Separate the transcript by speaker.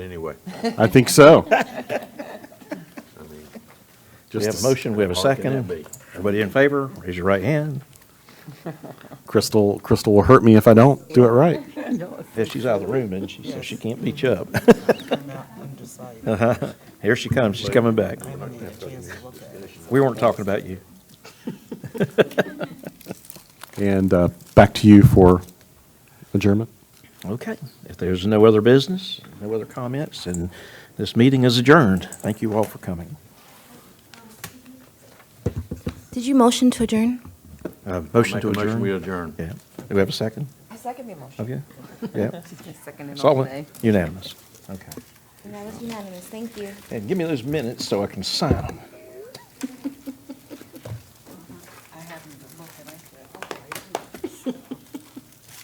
Speaker 1: anyway.
Speaker 2: I think so.
Speaker 1: I mean,
Speaker 2: Just
Speaker 3: We have
Speaker 2: as
Speaker 3: a motion, we have a
Speaker 1: how hard can that
Speaker 3: second.
Speaker 1: be?
Speaker 3: Everybody in favor, raise your right hand.
Speaker 2: Crystal, Crystal will hurt me if I don't do it right.
Speaker 3: If she's out of the room, and she says she can't beat you up.
Speaker 4: I'm out, I'm deciding. I
Speaker 3: Here she comes, she's coming back.
Speaker 4: haven't had a chance to look at it.
Speaker 3: We weren't talking about you.
Speaker 2: And uh, back to you for adjournment.
Speaker 3: Okay, if there's no other business, no other comments, and this meeting is adjourned. Thank you all for coming.
Speaker 5: Did you motion to adjourn?
Speaker 3: Uh, Motion
Speaker 1: Make
Speaker 3: to
Speaker 1: a motion, we
Speaker 3: adjourn?
Speaker 1: adjourn.
Speaker 3: Yeah. Do we have a second?
Speaker 6: I second the motion.
Speaker 3: Okay, yeah.
Speaker 6: Second and all
Speaker 3: Solid,
Speaker 6: nay.
Speaker 3: unanimous. Okay.
Speaker 5: That was unanimous, thank you.
Speaker 3: And give me those minutes so I can sign them.